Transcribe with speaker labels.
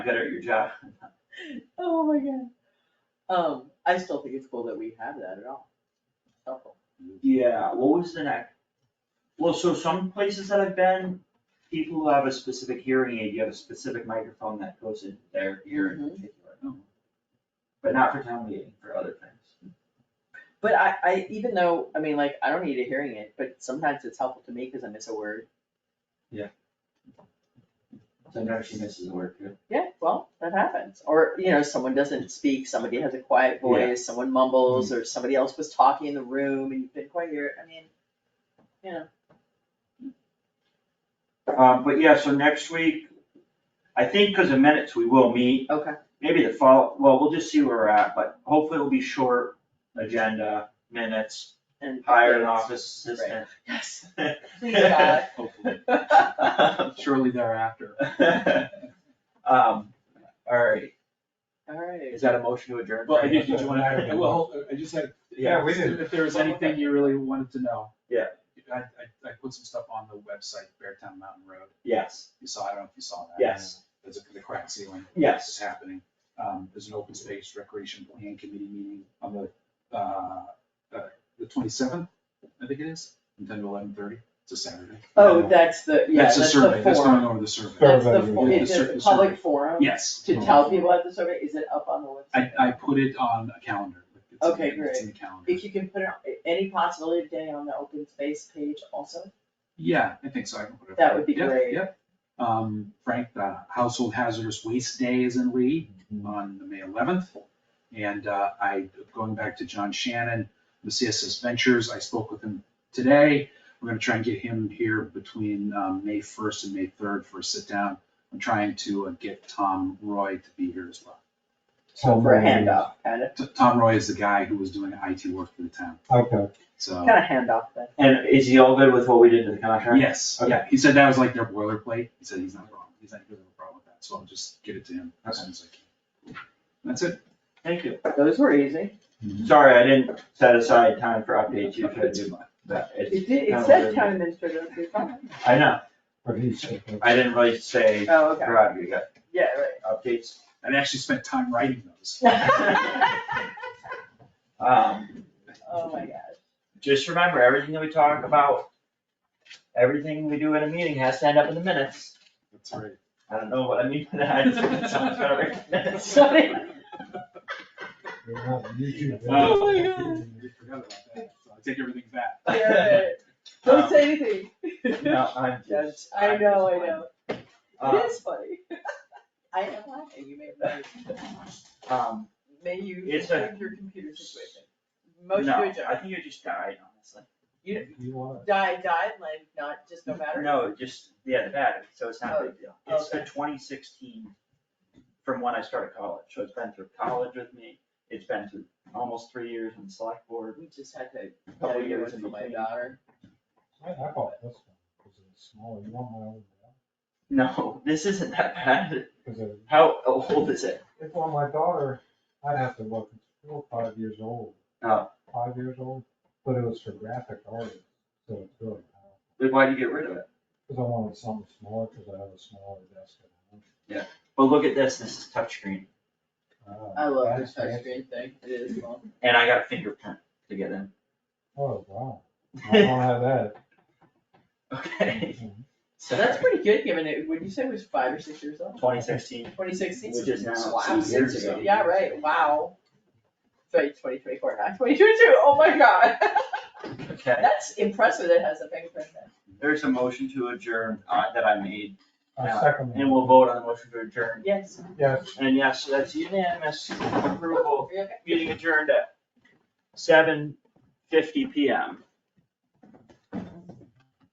Speaker 1: good at your job.
Speaker 2: Oh my god. Um, I still think it's cool that we have that at all. It's helpful.
Speaker 1: Yeah, what was the next? Well, so some places that I've been, people who have a specific hearing aid, you have a specific microphone that goes into their ear in
Speaker 2: Mhm.
Speaker 1: particular. But not for town meeting, for other things.
Speaker 2: But I, I, even though, I mean, like, I don't need a hearing aid, but sometimes it's helpful to me because I miss a word.
Speaker 1: Sometimes she misses a word too.
Speaker 2: Yeah, well, that happens. Or, you know, someone doesn't speak, somebody has a quiet voice, someone mumbles,
Speaker 3: Mm-hmm.
Speaker 2: or somebody else was talking in the room and you didn't quite hear it. I mean, you know,
Speaker 1: Um, but yeah, so next week, I think because of minutes, we will meet.
Speaker 2: okay,
Speaker 1: Maybe the fall, well, we'll just see where we're at, but hopefully it'll be short agenda, minutes,
Speaker 2: and.
Speaker 1: hire an office assistant.
Speaker 2: Yes, please God.
Speaker 3: hopefully,
Speaker 1: Um,
Speaker 3: shortly thereafter.
Speaker 1: all right,
Speaker 2: Alright.
Speaker 1: is that a motion to adjourn?
Speaker 3: Well, did you wanna hire,
Speaker 1: hire-
Speaker 3: well, I just had,
Speaker 1: Yeah, we did.
Speaker 3: if there was anything you really wanted to know.
Speaker 1: Yeah.
Speaker 3: I, I, I put some stuff on the website, Beartown Mountain Road,
Speaker 1: Yes,
Speaker 3: you saw, I don't know if you saw that.
Speaker 1: Yes.
Speaker 3: There's a, the crack ceiling.
Speaker 1: Yes.
Speaker 3: It's happening, um, there's an open space recreation plan committee meeting on the, uh, uh, the twenty-seventh, I think it is, from ten to eleven thirty, it's a Saturday.
Speaker 2: Oh, that's the, yeah, that's
Speaker 3: a
Speaker 2: the
Speaker 3: survey. That's going
Speaker 2: forum.
Speaker 3: over the survey.
Speaker 2: That's the, for-
Speaker 3: yeah.
Speaker 2: it's
Speaker 3: The sur-
Speaker 2: a
Speaker 3: the
Speaker 2: public
Speaker 3: survey.
Speaker 2: forum
Speaker 3: Yes.
Speaker 2: to tell people at the survey, is it up on the website?
Speaker 3: I, I put it on a calendar. It's in-
Speaker 2: Okay,
Speaker 3: It's in the calendar.
Speaker 2: If you can put it- any possibility of getting on the open space page also,
Speaker 3: Yeah, I think so. I can put it-
Speaker 2: That would be
Speaker 3: Yep,
Speaker 2: great.
Speaker 3: Yep. Um, Frank, the Household Hazardous Waste Day is in Lee
Speaker 2: Mm-hmm.
Speaker 3: on the May eleventh. And, uh, I, going back to John Shannon, the CSS Ventures, I spoke with him today. We're gonna try and get him here between, um, May first and May third for a sit down. I'm trying to uh, get Tom Roy to be here as well.
Speaker 2: so for a handoff, kind of,
Speaker 3: T- Tom Roy is the guy who was doing IT work for the town,
Speaker 4: Okay,
Speaker 1: Oh.
Speaker 3: so.
Speaker 2: kind of handoff thing.
Speaker 1: And is he all good with what we did to the contract?
Speaker 3: Yes,
Speaker 1: Okay.
Speaker 3: yeah, he said that was like their boilerplate, he said he's not wrong, he's not, he doesn't have a problem with that, so I'll just get it to him as soon as I can. That's it.
Speaker 1: Thank you.
Speaker 2: Those were easy.
Speaker 1: Sorry, I didn't set aside time for updates. You should
Speaker 3: It's
Speaker 1: do
Speaker 3: fine.
Speaker 1: that. It's
Speaker 2: It did,
Speaker 1: kind
Speaker 2: it
Speaker 1: of
Speaker 2: said
Speaker 1: weird.
Speaker 2: town administrator, okay, fine.
Speaker 1: I know,
Speaker 4: but he's, okay.
Speaker 1: I didn't really say,
Speaker 2: oh, okay,
Speaker 1: Rob, you got
Speaker 2: yeah,
Speaker 1: updates?
Speaker 3: I actually spent time writing those.
Speaker 2: right.
Speaker 1: Um,
Speaker 2: Oh my gosh,
Speaker 1: just remember, everything that we talk about, everything we do in a meeting has to end up in the minutes.
Speaker 3: That's right.
Speaker 1: I don't know what I mean by that. It sounds kind of weird. Minutes.
Speaker 2: Sorry.
Speaker 4: We're not YouTube.
Speaker 3: Oh
Speaker 2: my God.
Speaker 3: We forgot about that, so I take everything back.
Speaker 2: yeah, right.
Speaker 1: Um,
Speaker 2: don't say anything.
Speaker 1: No, I'm
Speaker 2: Judge,
Speaker 1: just.
Speaker 2: I
Speaker 1: I'm
Speaker 2: know,
Speaker 1: just-
Speaker 2: I know,
Speaker 1: Uh,
Speaker 2: it is funny. I am laughing, you may,
Speaker 1: Um,
Speaker 2: may you
Speaker 1: It's a-
Speaker 2: improve your computer situation.
Speaker 1: no,
Speaker 2: Motion to
Speaker 1: I
Speaker 2: adjourn,
Speaker 1: think you just died, honestly.
Speaker 2: you,
Speaker 4: You want,
Speaker 2: die, die, like, not, just no matter.
Speaker 1: No, just, yeah, the battery, so it's not a big deal. It's the
Speaker 2: Oh, Okay.
Speaker 1: twenty sixteen from when I started college, so it's been through college with me. It's been through almost three years in select board,
Speaker 2: We just had to,
Speaker 1: a
Speaker 2: get
Speaker 1: couple years
Speaker 2: one
Speaker 1: in
Speaker 2: for my
Speaker 1: between.
Speaker 2: daughter.
Speaker 4: I, I bought this one, because it's smaller, you want my old one?
Speaker 1: No, this isn't that bad.
Speaker 4: Because if,
Speaker 1: How old is it?
Speaker 4: if on my daughter, I'd have to look, it's four, or five years old.
Speaker 1: Oh.
Speaker 4: Five years old, but it was for graphic artists, so it's really,
Speaker 1: Then why'd you get rid of it?
Speaker 4: because I wanted something smaller, because I have a smaller desk at
Speaker 1: But look at this, this is touchscreen,
Speaker 4: home. Uh,
Speaker 2: I love this
Speaker 4: that's fancy.
Speaker 2: touchscreen thing, it is fun.
Speaker 1: and I got a fingerprint to get in.
Speaker 4: Oh, wow, I don't have that.
Speaker 1: Okay.
Speaker 2: So that's pretty good, given it, would you say it was five or six years old?
Speaker 1: Twenty sixteen,
Speaker 2: Twenty sixteen?
Speaker 1: which is now
Speaker 2: Wow.
Speaker 1: two years ago.
Speaker 2: Yeah, right, wow. Sorry, twenty twenty-four, not twenty twenty-two, oh my god,
Speaker 1: Okay,
Speaker 2: that's impressive, that it has a fingerprint there.
Speaker 1: there's a motion to adjourn, uh, that I made,
Speaker 4: I second.
Speaker 1: and we'll vote on the motion to adjourn.
Speaker 2: Yes.
Speaker 4: Yes,
Speaker 1: And yes, that's unanimous approval,
Speaker 2: Okay.
Speaker 1: meeting adjourned at seven fifty PM.